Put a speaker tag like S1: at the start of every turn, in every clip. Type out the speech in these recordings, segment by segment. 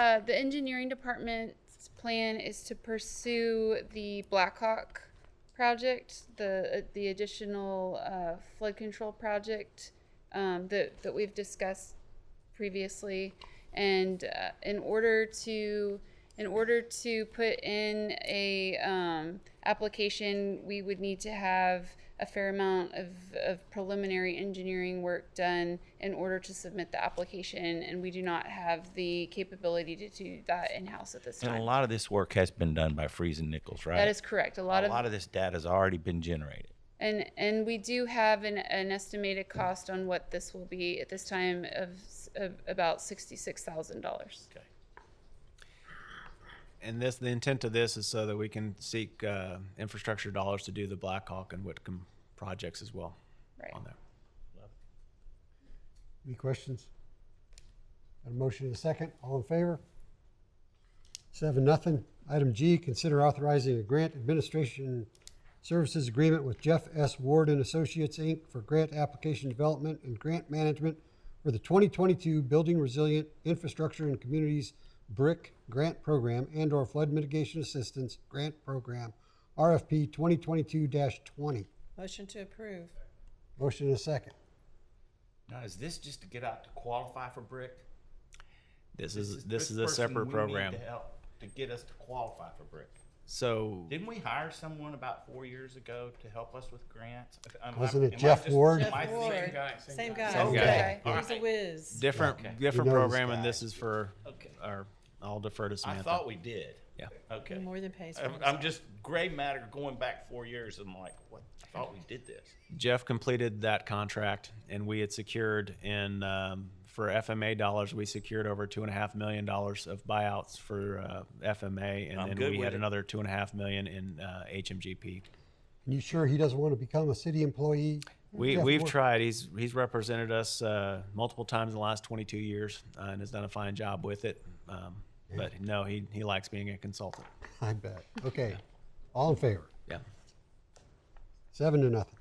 S1: Uh, the engineering department's plan is to pursue the Blackhawk project, the, uh, the additional, uh, flood control project, um, that, that we've discussed previously. And, uh, in order to, in order to put in a, um, application, we would need to have a fair amount of, of preliminary engineering work done in order to submit the application, and we do not have the capability to do that in-house at this
S2: And a
S1: time.
S2: lot of this work has been done by Freeze and Nichols, right?
S1: That is correct. A lot
S2: a
S1: of
S2: lot of this data has already been generated.
S1: And, and we do have an, an estimated cost on what this will be at this time of, s- of about sixty-six thousand dollars.
S3: And this, the intent of this is so that we can seek uh, infrastructure dollars to do the Blackhawk and Whitcomb projects as well
S1: Right.
S3: on there.
S4: Any questions? Got a motion and a second. All in favor? Seven, nothing. Item G, consider authorizing a grant administration services agreement with Jeff S. Ward and Associates, Inc. for grant application development and grant management for the 2022 Building Resilient Infrastructure and Communities BRIC Grant Program and/or Flood Mitigation Assistance Grant Program, RFP 2022-20.
S5: Motion to approve.
S4: Motion and a second.
S2: Now, is this just to get out to qualify for BRIC?
S3: This is, this is a separate program.
S2: to help to get us to qualify for BRIC.
S3: So,
S2: Didn't we hire someone about four years ago to help us with grants? Am I-
S4: Wasn't
S2: am
S4: it
S2: I
S4: Jeff
S2: just-
S4: Ward?
S2: am
S5: Jeff
S2: I thinking-
S5: Ward. Same guy.
S3: Same
S2: guy.
S5: Okay. He's a whiz.
S3: different, different
S4: We know this
S3: program and
S4: guy.
S3: this is for,
S2: Okay.
S3: or I'll defer to
S2: I
S3: Samantha.
S2: thought we did.
S3: Yeah.
S2: Okay.
S5: More than pays for
S2: I'm,
S5: himself.
S2: I'm just gray matter going back four years. I'm like, what? I thought we did this.
S3: Jeff completed that contract and we had secured in, um, for FMA dollars, we secured over two and a half million dollars of buyouts for uh, FMA.
S2: I'm
S3: And
S2: good
S3: then we
S2: with
S3: had
S2: it.
S3: another two and a half million in uh, HMGP.
S4: You sure he doesn't want to become a city employee?
S3: We,
S4: Jeff
S3: we've
S4: Ward.
S3: tried. He's he's represented us uh, multiple times in the last 22 years uh, and has done a fine job with it. Um, But no, he, he likes being a consultant.
S4: I bet. Okay. All in favor?
S3: Yeah.
S4: Seven to nothing.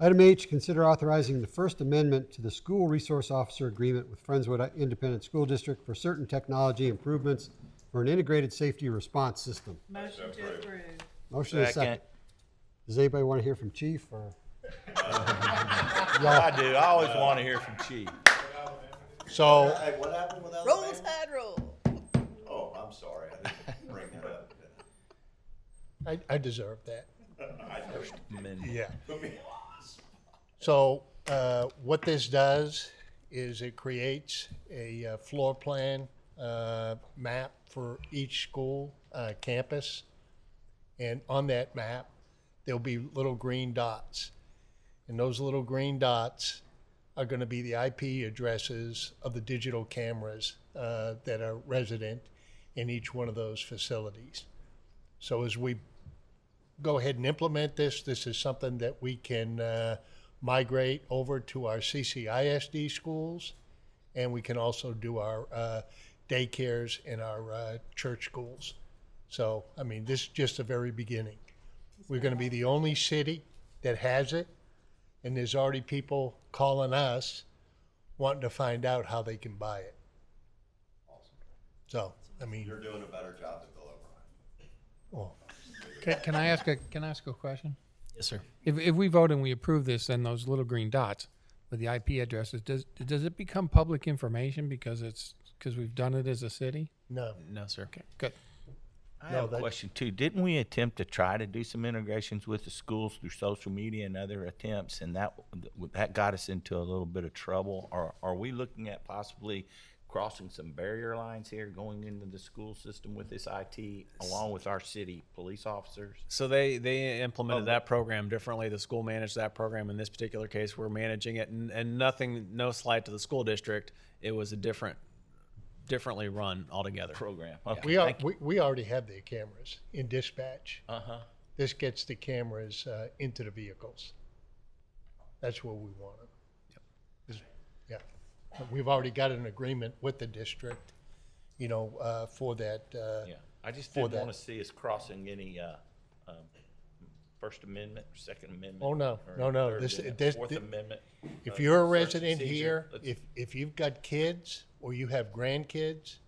S4: Item H, consider authorizing the First Amendment to the School Resource Officer Agreement with Friendswood Independent School District for certain technology improvements for an integrated safety response system.
S5: Motion to approve.
S4: Motion is second. Does anybody want to hear from Chief or?
S2: I do. I always want to hear from Chief.
S4: So,
S6: Hey, what happened with Alabama?
S5: Roll Tide, roll.
S6: Oh, I'm sorry, I didn't bring that up.
S7: I, I deserve that.
S2: Men.
S7: Yeah. So uh, what this does is it creates a uh, floor plan uh, map for each school uh, campus, and on that map there'll be little green dots, and those little green dots are going to be the IP addresses of the digital cameras uh, that are resident in each one of those facilities. So as we go ahead and implement this. This is something that we can uh, migrate over to our CCISD schools, and we can also do our uh, daycares in our uh, church schools. So, I mean, this is just the very beginning. We're going to be the only city that has it, and there's already people calling us wanting to find out how they can buy it. So, I mean,
S6: You're doing a better job than Bill O'Brien.
S7: oh,
S8: Can, can I ask a can I ask a question?
S3: Yes, sir.
S8: If if we vote and we approve this, then those little green dots with the IP addresses does does it become public information because it's because we've done it as a city?
S7: no.
S3: No, sir. Okay.
S8: Good.
S2: I have a
S7: that-
S2: question too. Didn't we attempt to try to do some integrations with the schools through social media and other attempts, and that that got us into a little bit of trouble? Are are we looking at possibly crossing some barrier lines here, going into the school system with this IT, along with our city police officers?
S3: So they they implemented that program differently. The school managed that program. In this particular case, we're managing it, and, and nothing, no slight to the school district. It was a different, differently run altogether.
S2: Program. Okay,
S7: We are,
S2: thank you.
S7: we, we already have the cameras in dispatch.
S2: Uh-huh.
S7: This gets the cameras uh, into the vehicles. That's where we want them. Is- Yeah. But We've already got an agreement with the district, you know, uh, for that. uh,
S2: Yeah, I just
S7: For
S2: didn't want
S7: that.
S2: to see us crossing any uh, um, First Amendment, Second Amendment.
S7: Oh, no.
S2: or
S7: No, no.
S2: Third
S7: This-
S2: Amendment,
S7: this-
S2: Fourth
S7: thi-
S2: Amendment.
S7: If
S2: uh,
S7: you're a
S2: search and
S7: resident
S2: seizure.
S7: here,
S2: Let's-
S7: if, if you've got kids or you have grandkids,